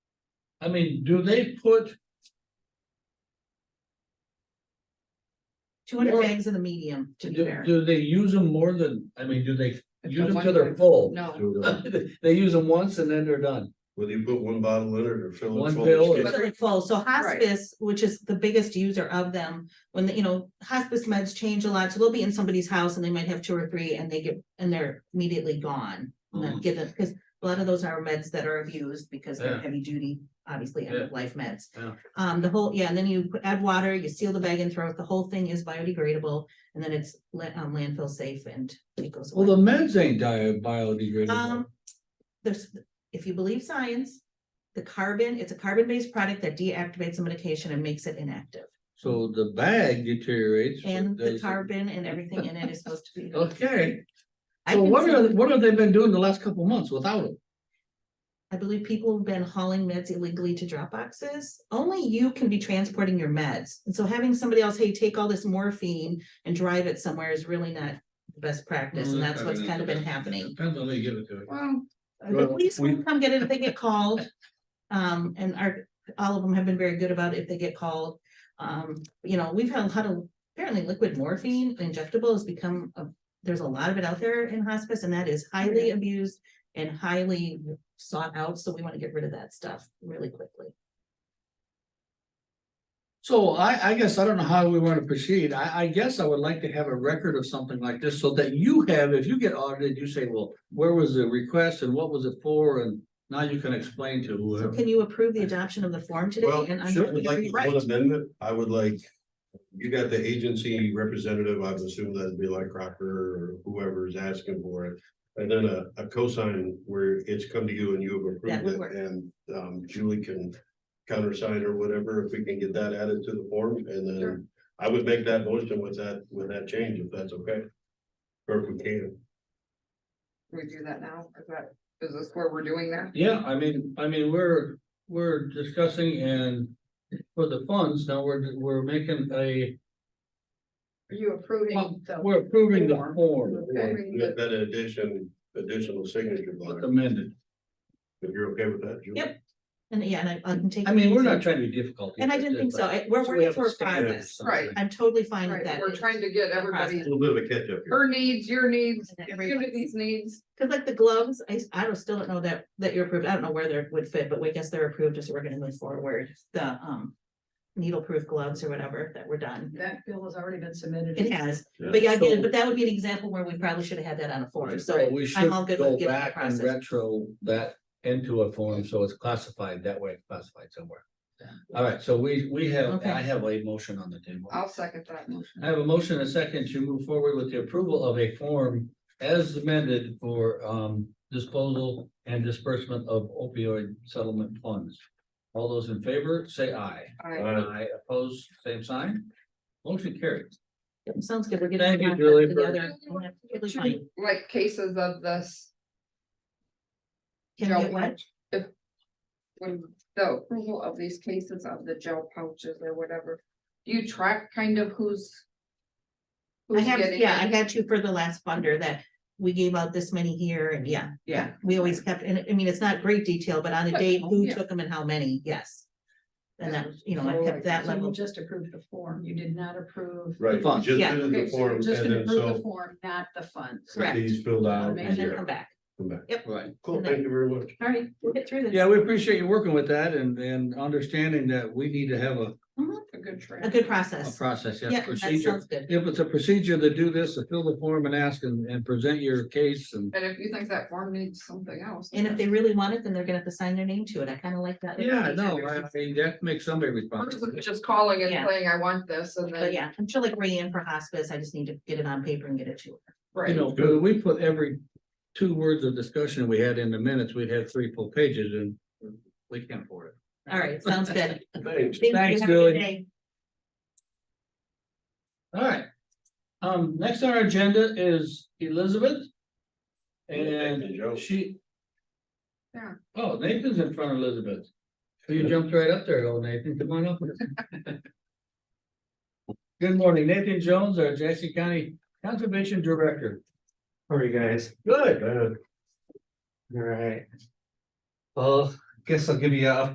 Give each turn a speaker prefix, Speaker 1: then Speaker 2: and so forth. Speaker 1: I mean, do they put,
Speaker 2: Two hundred
Speaker 1: Or-
Speaker 2: bags in the medium, to be
Speaker 1: do,
Speaker 2: fair.
Speaker 1: do they use them more than, I mean, do they
Speaker 3: If
Speaker 1: use
Speaker 3: the
Speaker 1: them
Speaker 3: one
Speaker 1: till they're
Speaker 3: time-
Speaker 1: full?
Speaker 2: No,
Speaker 1: They use them once and then they're done.
Speaker 4: Whether you put one bottle in it or fill
Speaker 1: One
Speaker 4: it full.
Speaker 1: pill
Speaker 4: it's-
Speaker 1: or-
Speaker 2: usually full. So hospice, which is the biggest user of them, when, the you know, hospice meds change a lot, so they'll be in somebody's house and they might have two or three and they get, and they're immediately gone. And then
Speaker 1: Mhm.
Speaker 2: get them, because a lot of those are meds that are abused because they're
Speaker 1: Yeah.
Speaker 2: heavy duty, obviously, end of life meds.
Speaker 1: Yeah.
Speaker 2: Um, the whole, yeah, and then you put- add water, you seal the bag and throw it, the whole thing is biodegradable, and then it's la- um, landfill safe and it goes
Speaker 1: Well, the
Speaker 2: away.
Speaker 1: meds ain't di- biodegradable.
Speaker 2: Um, there's, if you believe science, the carbon, it's a carbon-based product that deactivates a medication and makes it inactive.
Speaker 1: So the bag deteriorates. but
Speaker 2: And the
Speaker 1: does-
Speaker 2: carbon and everything in it is supposed to be.
Speaker 1: Okay,
Speaker 2: I've
Speaker 1: so
Speaker 2: been
Speaker 1: what are,
Speaker 2: seeing-
Speaker 1: what have they been doing the last couple months without it?
Speaker 2: I believe people have been hauling meds illegally to drop boxes. Only you can be transporting your meds. And so having somebody else, hey, take all this morphine and drive it somewhere is really not the best practice,
Speaker 1: Mm,
Speaker 2: and that's what's kind of been happening.
Speaker 1: Depends on who you give it to.
Speaker 3: Well, I
Speaker 2: The
Speaker 3: think
Speaker 2: police will
Speaker 3: we-
Speaker 2: come get it if they get called. Um, and our, all of them have been very good about it if they get called. Um, you know, we've had a lot of, apparently liquid morphine injectable has become, a- there's a lot of it out there in hospice and that is highly abused and highly sought out, so we want to get rid of that stuff really quickly.
Speaker 1: So I, I guess I don't know how we want to proceed. I, I guess I would like to have a record of something like this so that you have, if you get audited, you say, well, where was the request and what was it for? And now you can explain to
Speaker 2: So
Speaker 1: whoever.
Speaker 2: can you approve the adoption of the form today?
Speaker 4: Well,
Speaker 2: And I'm
Speaker 4: sure,
Speaker 2: going
Speaker 4: I'd
Speaker 2: to
Speaker 4: like
Speaker 2: rewrite.
Speaker 4: one amendment, I would like, you got the agency representative, I would assume that'd be like Crocker or whoever's asking for it. And then a, a cosign where it's come to you and you have
Speaker 2: That would
Speaker 4: approved
Speaker 2: work.
Speaker 4: it and, um, Julie can countersign or whatever, if we can get that added to the form and
Speaker 3: Sure.
Speaker 4: then I would make that motion with that, with that change, if that's okay. Or if we can.
Speaker 3: we do that now, is that, is this where we're doing that?
Speaker 1: Yeah, I mean, I mean, we're, we're discussing and for the funds, now we're, we're making a,
Speaker 3: Are you approving the?
Speaker 1: we're approving the
Speaker 3: Form.
Speaker 1: form
Speaker 3: Okay.
Speaker 4: With that addition, additional signature
Speaker 1: with
Speaker 4: line,
Speaker 1: amended.
Speaker 4: if you're okay with that. Julie?
Speaker 2: Yep. And yeah, and I I can take.
Speaker 1: I mean, we're not trying to be difficult.
Speaker 2: And I didn't think so. I- We're
Speaker 1: So we
Speaker 2: working
Speaker 1: have
Speaker 2: for a
Speaker 1: standard
Speaker 2: progress.
Speaker 1: or something.
Speaker 3: Right.
Speaker 2: I'm totally fine with
Speaker 3: Right,
Speaker 2: that.
Speaker 3: we're trying to get
Speaker 4: A
Speaker 3: everybody,
Speaker 4: little bit of a catch up here.
Speaker 3: her needs, your needs,
Speaker 2: And everybody's-
Speaker 3: community's needs,
Speaker 2: Cause like the gloves, I, s- I don't, still don't know that, that you're approved, I don't know where they would fit, but we guess they're approved, so we're gonna move forward, the, um. Needle-proof gloves or whatever that were done,
Speaker 5: That bill has already been submitted.
Speaker 2: it has,
Speaker 4: Yeah.
Speaker 2: but yeah, I get
Speaker 1: So-
Speaker 2: it, but that would be an example where we probably should have had that on a form,
Speaker 1: So
Speaker 2: so.
Speaker 1: we should
Speaker 2: all good
Speaker 1: go
Speaker 2: with giving the
Speaker 1: back and
Speaker 2: process.
Speaker 1: retro that into a form, so it's classified, that way it's classified somewhere. All right, so we, we have,
Speaker 2: Okay.
Speaker 1: I have a motion on the table.
Speaker 3: I'll second that motion.
Speaker 1: I have a motion and a second to move forward with the approval of a form as amended for, um, disposal and disbursement of opioid settlement funds. All those in favor, say aye.
Speaker 3: I,
Speaker 4: Uh,
Speaker 1: Aye, opposed, same sign. Motion carried.
Speaker 2: Sounds good, we're
Speaker 1: Thank
Speaker 2: getting.
Speaker 1: you,
Speaker 2: the process
Speaker 1: Julie, for-
Speaker 2: together, and that's totally fine.
Speaker 3: like cases of this.
Speaker 2: Can
Speaker 3: gel
Speaker 2: we get what?
Speaker 3: pouch, If. When the approval of these cases of the gel pouches or whatever, do you track kind of who's?
Speaker 2: I
Speaker 3: who's
Speaker 2: have,
Speaker 3: getting
Speaker 2: yeah, I
Speaker 3: it?
Speaker 2: had to for the last funder that we gave out this many here and yeah.
Speaker 3: Yeah,
Speaker 2: We always kept, and I mean, it's not great detail, but on a
Speaker 3: But,
Speaker 2: date, who
Speaker 3: yeah.
Speaker 2: took them and how many, yes. And that, was, you know, I
Speaker 3: So,
Speaker 2: kept that
Speaker 5: So you
Speaker 2: level,
Speaker 5: just approved the form, you did not approve.
Speaker 4: Right,
Speaker 1: The
Speaker 4: you
Speaker 1: funds.
Speaker 4: just
Speaker 2: Yeah.
Speaker 4: did it in the
Speaker 5: Okay, so
Speaker 4: form,
Speaker 5: you're
Speaker 4: and
Speaker 5: just gonna
Speaker 4: then
Speaker 5: approve the
Speaker 4: so
Speaker 5: form, not the funds.
Speaker 2: Correct.
Speaker 4: these filled out.
Speaker 5: Amazing.
Speaker 2: and then
Speaker 4: yeah,
Speaker 2: come back.
Speaker 4: come back.
Speaker 1: Right.
Speaker 4: Cool, thank you very much.
Speaker 2: All right, we'll get through this.
Speaker 1: Yeah, we appreciate you working with that and, and understanding that we need to have a,
Speaker 3: a good track.
Speaker 2: A good
Speaker 1: a
Speaker 2: process.
Speaker 1: process, yeah,
Speaker 2: Yeah, that
Speaker 1: procedure.
Speaker 2: sounds good.
Speaker 1: If it's a procedure to do this, to fill the form and ask and, and present your case and.
Speaker 3: And if you think that form needs something else.
Speaker 2: And if they really want it, then they're gonna have to sign their name to it. I kind of like that.
Speaker 1: Yeah, no, I mean, that makes somebody responsible.
Speaker 3: Versus just calling and
Speaker 2: Yeah.
Speaker 3: saying, I want this, and
Speaker 2: But
Speaker 3: then,
Speaker 2: yeah, I'm sure like Rayanne for hospice, I just need to get it on paper and get it to her.
Speaker 1: You
Speaker 3: right,
Speaker 1: know,
Speaker 4: Good.
Speaker 1: we put every two words of discussion we had in the minutes, we'd have three full pages and we can't afford it.
Speaker 2: All right, sounds good.
Speaker 4: Thanks.
Speaker 2: Thank you.
Speaker 1: Thanks,
Speaker 2: Have a good
Speaker 1: Julie.
Speaker 2: day.
Speaker 1: All right. Um, next on our agenda is Elizabeth. And
Speaker 4: Thank you, Joe.
Speaker 1: she.
Speaker 3: Yeah.
Speaker 1: Oh, Nathan's in front of Elizabeth. So You jumped right up there, old Nathan, come on up. Good morning, Nathan Jones, our Jackson County Conservation Director.
Speaker 6: How are you guys?
Speaker 1: Good.
Speaker 4: Uh,
Speaker 6: All right. Well, guess I'll give you a